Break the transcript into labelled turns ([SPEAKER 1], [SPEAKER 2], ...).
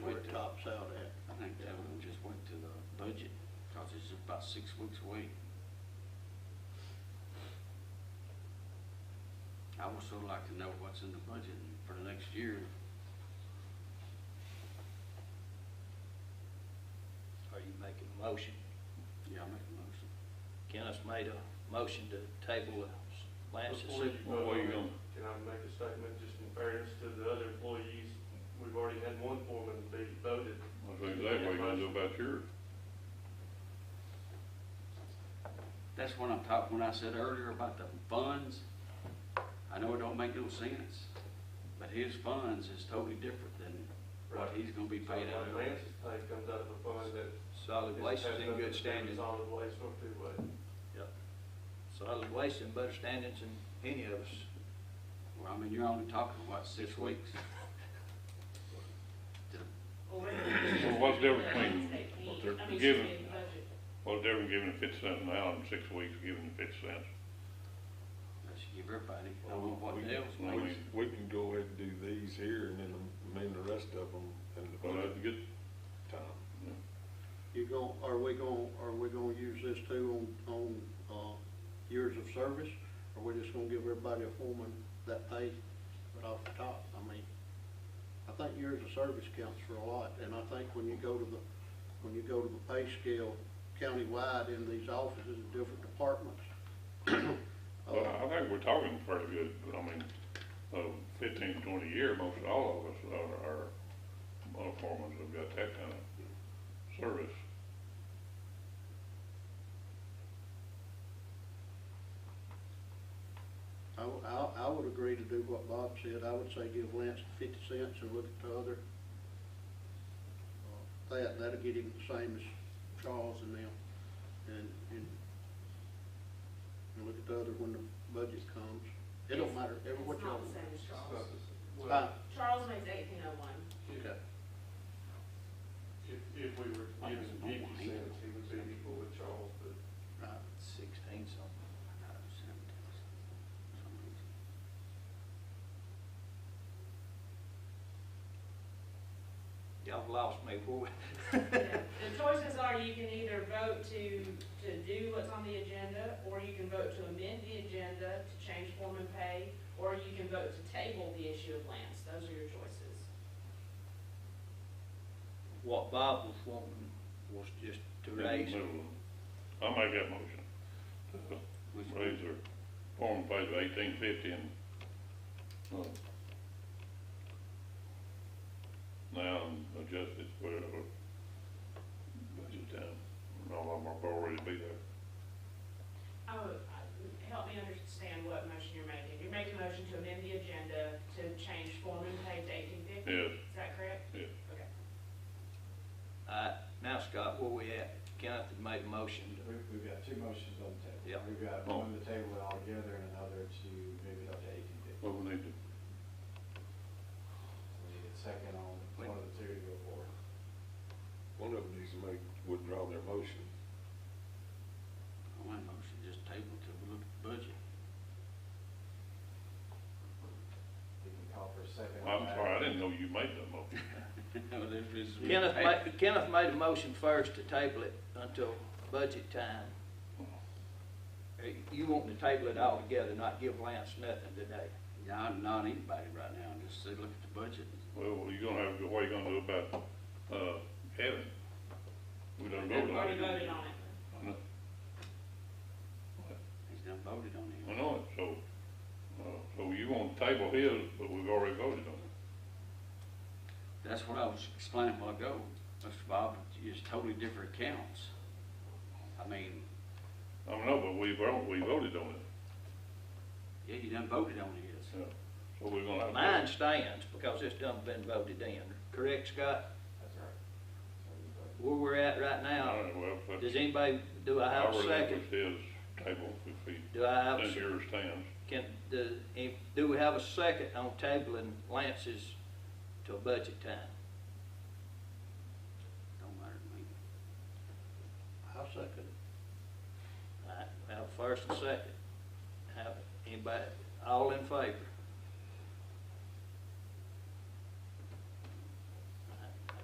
[SPEAKER 1] uh, budget, cause it's about six weeks away. I would so like to know what's in the budget for the next year.
[SPEAKER 2] Are you making a motion?
[SPEAKER 1] Yeah, I make a motion.
[SPEAKER 2] Kenneth made a motion to table Lance's.
[SPEAKER 3] Before you
[SPEAKER 4] Well, where you
[SPEAKER 3] vote on
[SPEAKER 4] going?
[SPEAKER 3] it, Can I make a statement, just in fairness to the other employees? We've already had one foreman be voted.
[SPEAKER 4] I think that way you gonna do about yours.
[SPEAKER 1] That's what I'm talking, when I said earlier about the funds, I know it don't make no sense, but his funds is totally different than what he's gonna be
[SPEAKER 3] So
[SPEAKER 1] paid out
[SPEAKER 3] like
[SPEAKER 1] of.
[SPEAKER 3] Lance's pay comes out of a fund that.
[SPEAKER 2] Solid waste is in good standing.
[SPEAKER 3] Solid waste or two way.
[SPEAKER 2] Solid waste in better standings than any of us.
[SPEAKER 1] Well, I mean, you're only talking, what, six weeks?
[SPEAKER 4] Well,
[SPEAKER 5] Well,
[SPEAKER 4] what's the difference between what they're giving? What's the difference giving fifty cents an hour and six weeks giving fifty cents?
[SPEAKER 1] I should give everybody, I don't know what
[SPEAKER 6] We-
[SPEAKER 1] else
[SPEAKER 4] I
[SPEAKER 6] We,
[SPEAKER 1] makes.
[SPEAKER 4] mean,
[SPEAKER 6] we can go ahead and do these here and then amend the rest of them in the
[SPEAKER 4] Well,
[SPEAKER 6] budget
[SPEAKER 4] that's good.
[SPEAKER 6] time.
[SPEAKER 7] You gon, are we gon, are we gonna use this too on, on, uh, years of service? Or we just gonna give everybody a foreman that pay right off the top? I mean, I think years of service counts for a lot, and I think when you go to the, when you go to the pay scale countywide in these offices and different departments. uh,
[SPEAKER 4] Well, I think we're talking pretty good, but I mean, uh, fifteen, twenty year, most all of us are, are, our foremen have got that kind of service.
[SPEAKER 7] I, w- I, I would agree to do what Bob said, I would say give Lance fifty cents and look at the other. uh, That, that'll get him the same as Charles and them, and, and, and look at the other when the budget comes. It don't matter, every what
[SPEAKER 5] It's
[SPEAKER 7] y'all
[SPEAKER 5] not the
[SPEAKER 7] want.
[SPEAKER 5] same as Charles.
[SPEAKER 7] Fine.
[SPEAKER 3] Well,
[SPEAKER 5] Charles makes eighteen oh one.
[SPEAKER 3] if, if- if we were giving fifty cents, he would be equal with Charles, but
[SPEAKER 7] Right.
[SPEAKER 2] Sixteen something. Y'all lost me, boy.
[SPEAKER 5] The choices are you can either vote to, to do what's on the agenda, or you can vote to amend the agenda to change form and pay, or you can vote to table the issue of lands. Those are your choices.
[SPEAKER 2] What Bob was wanting was just to raise,
[SPEAKER 4] I make that motion. Uh,
[SPEAKER 1] Which
[SPEAKER 4] Raise their foreman pay to eighteen fifty and, uh, now adjust it for whatever budget time, and all of them are already be there.
[SPEAKER 5] Oh, I- help me understand what motion you're making. You're making a motion to amend the agenda to change form and pay to eighteen fifty?
[SPEAKER 4] Yes,
[SPEAKER 5] Is that correct?
[SPEAKER 4] yes.
[SPEAKER 5] Okay.
[SPEAKER 2] uh, now Scott, where we at? Kenneth had made a motion to
[SPEAKER 8] We've, we've got two motions on the table.
[SPEAKER 2] Yeah.
[SPEAKER 8] We've got one to table it altogether and another to move it up to eighteen fifty.
[SPEAKER 4] Well, we need to,
[SPEAKER 8] We need a second on one of the two to go forward.
[SPEAKER 6] One of them needs to make, withdraw their motion.
[SPEAKER 1] I want a motion, just table till we look at the budget.
[SPEAKER 8] You can call for a second. on
[SPEAKER 4] I'm
[SPEAKER 8] that.
[SPEAKER 4] sorry, I didn't know you made that motion.
[SPEAKER 1] Well, this is-
[SPEAKER 2] Kenneth made, Kenneth made a motion first to table it until budget time. Uh, You wanting to table it altogether, not give Lance nothing today.
[SPEAKER 1] Yeah, I'm not anybody right now, just say, look at the budget.
[SPEAKER 4] Well, you're gonna have, what are you gonna do about, uh, Evan? We done voted
[SPEAKER 5] We've
[SPEAKER 4] on
[SPEAKER 5] already
[SPEAKER 4] it.
[SPEAKER 5] voted on it.
[SPEAKER 4] I know-
[SPEAKER 1] He's done voted on
[SPEAKER 4] I
[SPEAKER 1] it.
[SPEAKER 4] know it, so, uh, so you want to table his, but we've already voted on it.
[SPEAKER 1] That's what I was explaining a while ago, Mr. Bob, it's totally different accounts. I mean,
[SPEAKER 4] I don't know, but we, vote- we voted on it,
[SPEAKER 1] yeah, you done voted on his.
[SPEAKER 4] yeah. So we're gonna have. to-
[SPEAKER 2] Mine stands because it's done been voted in, correct, Scott?
[SPEAKER 8] That's right. So we vote.
[SPEAKER 2] Where we're at right
[SPEAKER 4] All
[SPEAKER 2] now,
[SPEAKER 4] right, well, but.
[SPEAKER 2] does anybody, do I have a second?
[SPEAKER 4] His table, if he,
[SPEAKER 2] Do I have,
[SPEAKER 4] since
[SPEAKER 2] a-
[SPEAKER 4] yours stands,
[SPEAKER 2] can, do, if- do we have a second on tabling Lance's till budget time?
[SPEAKER 1] Don't matter to me.
[SPEAKER 7] I second it.
[SPEAKER 2] All right, we have a first and second. Have, anybody, all in favor?